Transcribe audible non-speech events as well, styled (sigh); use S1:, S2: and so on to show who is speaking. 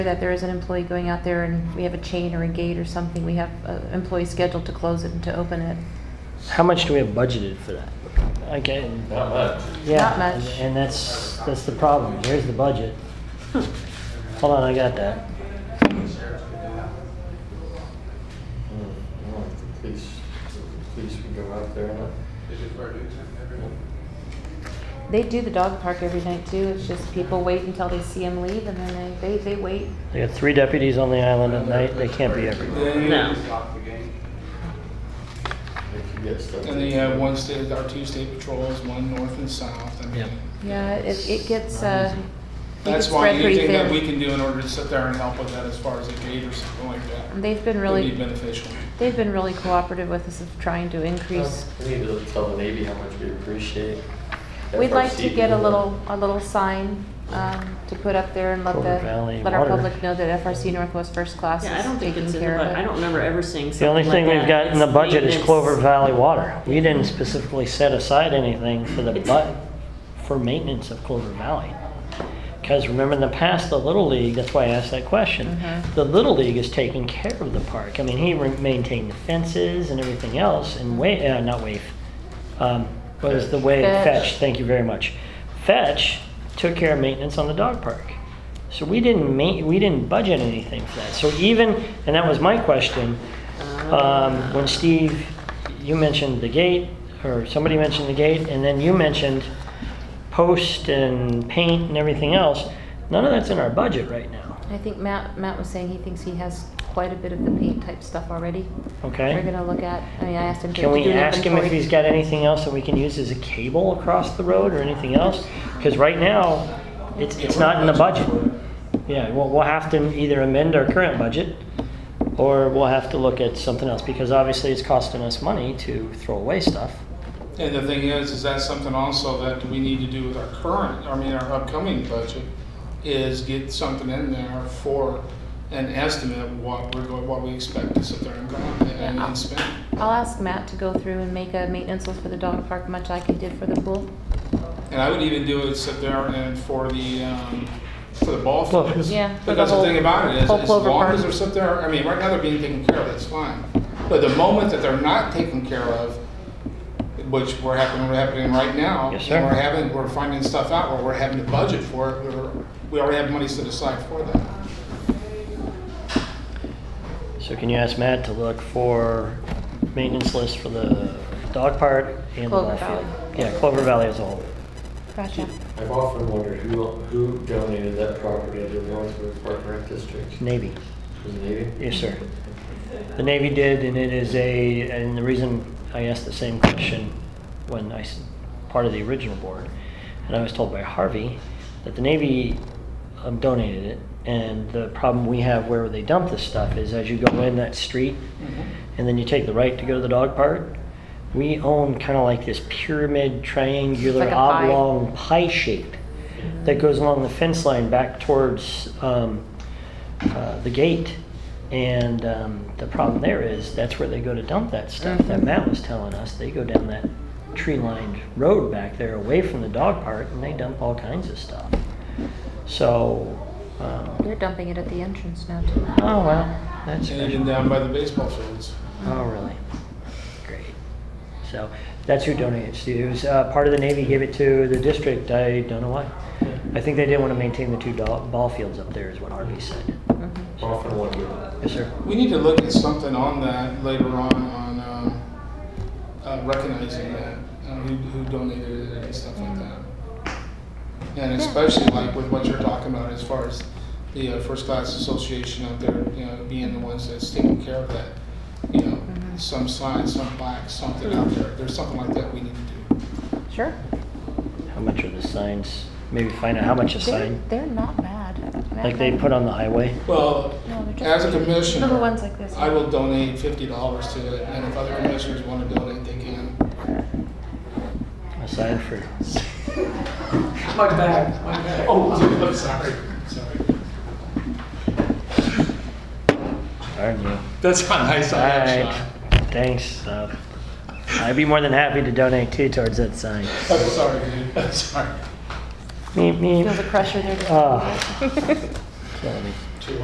S1: that there is an employee going out there and we have a chain or a gate or something, we have an employee scheduled to close it and to open it.
S2: How much do we have budgeted for that? Okay, and-
S3: Not much.
S2: yeah,
S1: Not much.
S2: and- and that's that's the problem. Here's the budget. Hold on, I got that.
S3: Mm, mm, the Police, the police would go out there, uh, huh?
S1: They do the dog park every night too, it's just people wait until they see him leave and then they, they, they wait.
S2: They got three deputies on the island at night. They can't be everywhere.
S4: No.
S3: If you get stuff.
S4: And then you have one state, our two state patrols, one north and south. I mean,
S2: Yep.
S1: Yeah, it, it gets, uh, it gets
S4: That's why
S1: spread pretty
S4: anything that we
S1: thin.
S4: can do in order to sit there and help with that as far as a gate or something like that
S1: And They've been
S4: would be
S1: really,
S4: beneficial.
S1: they've been really cooperative with us of trying to increase.
S3: We need to tell the Navy how much we appreciate.
S1: We'd like to
S3: FRCP.
S1: get a little, a little sign, um, to put up there and let
S2: Culver
S1: the,
S2: Valley
S1: let our
S2: Water.
S1: public know that FRC Northwest First Class
S5: Yeah, I don't
S1: is
S5: think
S1: taking
S5: it's in the
S1: care
S5: budget.
S1: of
S5: I
S1: it.
S5: don't remember ever seeing
S2: The
S5: something
S2: only
S5: like that.
S2: thing we've got in the
S5: It's
S2: budget is
S5: maintenance.
S2: Clover Valley Water. We didn't specifically set aside anything for the but for maintenance of Clover Valley. Because remember in the past, the Little League, that's why I asked that question.
S5: Mm-hmm.
S1: Mhm.
S2: The Little League is taking care of the park. I mean, he re- maintained the fences and everything else and wa, uh, not Waif. Um, what was the way,
S1: Fetch.
S2: Fetch, thank you very much. Fetch took care of maintenance on the dog park. So we didn't ma, we didn't budget anything for that. So even, and that was my question,
S5: Oh.
S2: um, when Steve, you mentioned the gate, or somebody mentioned the gate, and then you mentioned post and paint and everything else. None of that's in our budget right now.
S1: I think Matt, Matt was saying he thinks he has quite a bit of the paint type stuff already. We're
S2: Okay.
S1: gonna look at, I mean, I asked him to.
S2: Can
S1: to
S2: we
S1: do an
S2: ask him if
S1: inventory.
S2: he's got anything else that we can use as a cable across the road or anything else? Because right now, it's it's not in the budget. Yeah, we'll, we'll have to either amend our current budget, or we'll have to look at something else because obviously it's costing us money to throw away stuff.
S4: And the thing is, is that's something also that we need to do with our current, I mean, our upcoming budget, is get something in there for an estimate of what we're going, what we expect to sit there and go out and and spend.
S1: I'll ask Matt to go through and make a maintenance list for the dog park, much like he did for the pool.
S4: And I would even do it, sit there and for the, um, for the ball
S2: Well,
S4: fields.
S1: Yeah, for
S4: But
S1: the
S4: that's the
S1: whole-
S4: thing about it, is
S1: whole
S4: as
S1: Clover
S4: long
S1: Park.
S4: as they're sit there, I mean, right now they're being taken care of, that's fine. But the moment that they're not taken care of, which we're happening, we're happening right now.
S2: Yes,
S4: and
S2: sir.
S4: We're having, we're finding stuff out where we're having to budget for it, we're- we already have money set aside for that.
S2: So can you ask Matt to look for maintenance list for the dog park and the
S1: Clover
S2: ball field?
S1: Valley.
S2: Yeah, Clover Valley as a whole.
S1: Gotcha.
S3: I've often wondered who, who donated that property to the Lawrenceburg Park Rec District?
S2: Navy,
S3: Was it Navy?
S2: yes, sir. The Navy did, and it is a, and the reason I asked the same question when I, s- part of the original board, and I was told by Harvey that the Navy um, donated it, and the problem we have where they dump this stuff is as you go in that street, and then you take the right to go to the dog park. We own kind of like this pyramid, triangular,
S1: Like a pie.
S2: oblong pie shape that goes along the fence line back towards um, uh, the gate. And um, the problem there is that's where they go to dump that stuff
S1: Mm-hmm.
S2: that Matt was telling us. They go down that tree lined road back there away from the dog park and they dump all kinds of stuff. So, um,
S1: They're dumping it at the entrance now too.
S2: oh well, that's
S4: And uh,
S2: special.
S4: even down by the baseball fields.
S2: Oh, really? Great. So that's who donated it to. It was uh, part of the Navy gave it to the district. I don't know why. I think they didn't want to maintain the two doll- ball fields up there, is what Harvey said.
S3: I've Often wondered.
S2: Yes, sir.
S4: We need to look at something on that later on, on um, uh, recognizing that, uh, who who donated it and stuff like that. And especially like with what you're talking about as far as the uh, First Class Association out there, you know, being the ones that's taking care of that. You know,
S1: Mm-hmm.
S4: some sign, some plaque, something out there. There's something like that we need to do.
S1: Sure.
S2: How much are the signs? Maybe find out how much a
S1: They're,
S2: sign,
S1: they're not bad.
S2: like they put on the highway.
S4: Well,
S1: No, they're
S4: as
S1: just-
S4: a commissioner,
S1: Little ones like this.
S4: I will donate fifty dollars to it, and if other commissioners want to donate, they can.
S2: A sign for
S4: My bag, my bag. Oh, (laughs) dude, I'm sorry. Sorry.
S2: darn you.
S4: That's not nice.
S2: All
S4: I am
S2: right.
S4: sorry.
S2: Thanks. Uh, I'd be more than happy to donate too towards that sign.
S4: I'm sorry, dude. I'm sorry.
S2: Meep, meep.
S1: Feel the pressure there.
S2: Ah. (laughs)
S1: to-
S2: Killing me.